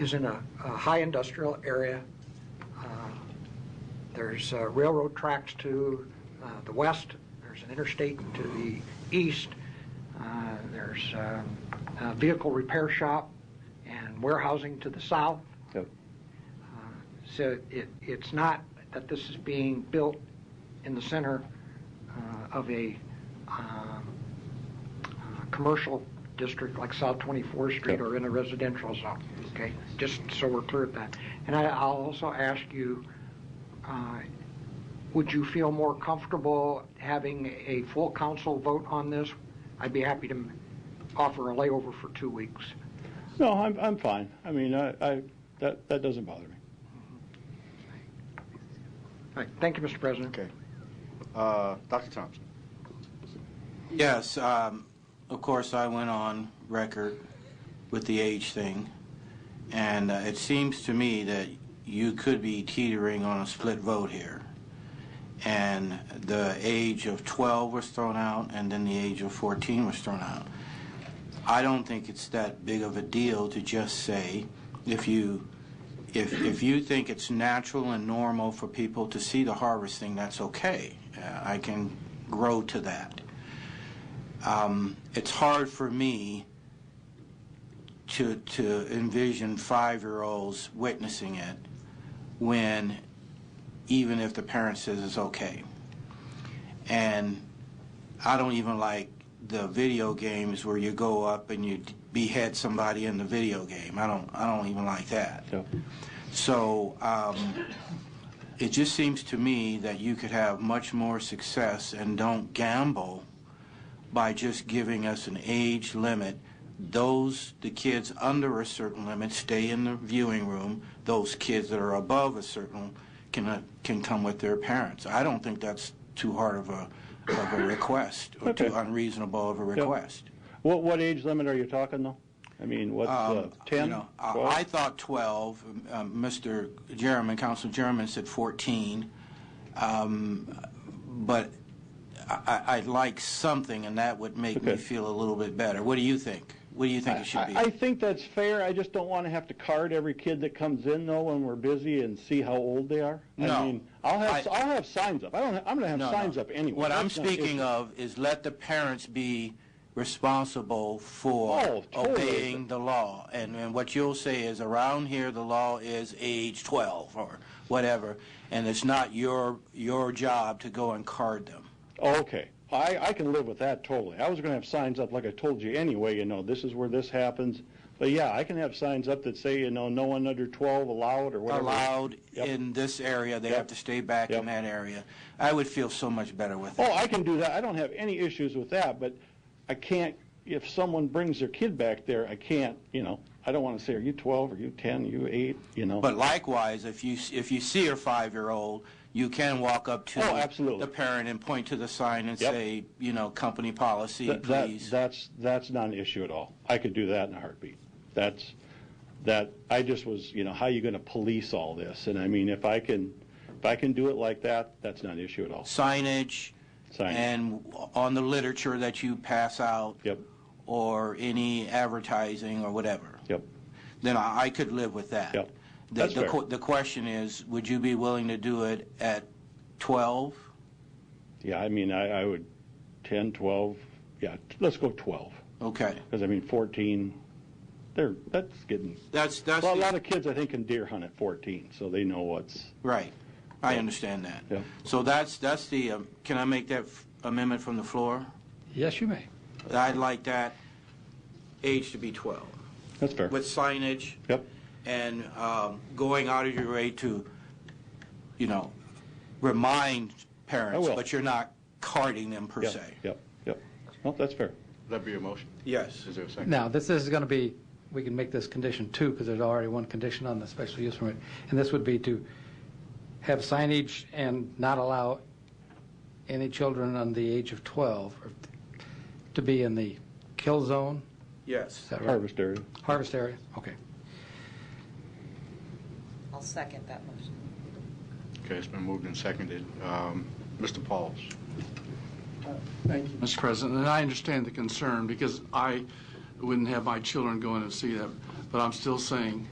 is in a, a high industrial area. Uh, There's uh, railroad tracks to uh, the west, there's an interstate to the east, Uh, there's um, a vehicle repair shop and warehousing to the south. Yep. Uh, So it, it's not that this is being built in the center uh, of a um, uh, commercial district like South 24th Street Yeah. or in a residential zone, okay? Just so we're clear of that. And I- I'll also ask you, uh, would you feel more comfortable having a full council vote on this? I'd be happy to offer a layover for two weeks. No, I'm, I'm fine. I mean, I, I, that, that doesn't bother me. All right, Thank you, Mr. President. Okay. Uh, Dr. Thompson? Yes, um, of course, I went on record with the age thing, and uh, it seems to me that you could be teetering on a split vote here. And the age of 12 was thrown out, and then the age of 14 was thrown out. I don't think it's that big of a deal to just say, if you, if, if you think it's natural and normal for people to see the harvesting, that's okay. Uh, I can grow to that um, it's hard for me to, to envision five-year-olds witnessing it when, even if the parent says it's okay. And I don't even like the video games where you go up and you behead somebody in the video game. I don't, I don't even like that. Yep. So um, it just seems to me that you could have much more success and don't gamble by just giving us an age limit. Those, the kids under a certain limit stay in the viewing room. Those kids that are above a certain can, uh, can come with their parents. I don't think that's too hard of a, of a request or too Okay. unreasonable of a request. What, what age limit are you talking though? I mean, what's, uh, Um, you 10? know, I- I thought 12. Um, Mr. Jeremy, Council Jeremy said 14. Um, But I- I- I'd like something, and that would make me Okay. feel a little bit better. What do you think? What do you think it should I, I be? think that's fair. I just don't want to have to card every kid that comes in though when we're busy and see how old they are. I No. mean, I'll have, I- I'll have signs up. I don't, I'm going to No, have no. signs up anyway. What I'm That's not an speaking issue. of is let the parents be responsible for Oh, totally. obeying the law. And and what you'll say is, around here, the law is age 12 or whatever, and it's not your your job to go and card them. Oh, Okay. I, I can live with that totally. I was going to have signs up like I told you anyway, you know, this is where this happens. But yeah, I can have signs up that say, you know, no one under 12 allowed or whatever. allowed Yep. in this area, they Yep. have to stay back Yep. in that area. I would feel so much better with Oh, it. I can do that. I don't have any issues with that, but I can't, if someone brings their kid back there, I can't, you know, I don't want to say, are you 12, are you 10, are you 8, you know? But likewise, if you, if you see a five-year-old, you can walk up to Oh, absolutely. the parent and point to the sign and Yep. say, you know, company policy, That- that- please. That's, that's not an issue at all. I could do that in a heartbeat. That's, that, I just was, you know, how you going to police all this? And I mean, if I can, if I can do it like that, that's not an issue at all. Signage Sign. and on the literature that you pass out. Yep. Or any advertising or whatever. Yep. then I I could live with that. Yep. The- That's the fair. que- The question is, would you be willing to do it at 12? Yeah, I mean, I, I would, 10, 12, yeah, t- let's go 12. Okay, Because I mean, 14, they're, that's getting, that's, that's, well, a lot the- of kids, I think, can deer hunt at 14, so they know what's, right, I understand that. Yep. So that's, that's the, um, can I make that f- amendment from the floor? Yes, you may. I'd like that age to be 12, that's fair. with signage Yep, and um, going out of your way to, you know, remind parents, will. but you're not carding them per yep, se. yep, yep. No, that's fair. That'd be your motion. Yes. Is there a second? Now, this this is going to be, we can make this condition two, because there's already one condition on the special use permit. And this would be to have signage and not allow any children under the age of 12 or to be in the kill zone, Yes. is that right? Harvest area. Harvest area, okay. I'll second that motion. Okay, it's been moved and seconded. Um, Mr. Pauls? Mr. President, and I understand the concern, because I wouldn't have my children going to see that, but I'm still saying,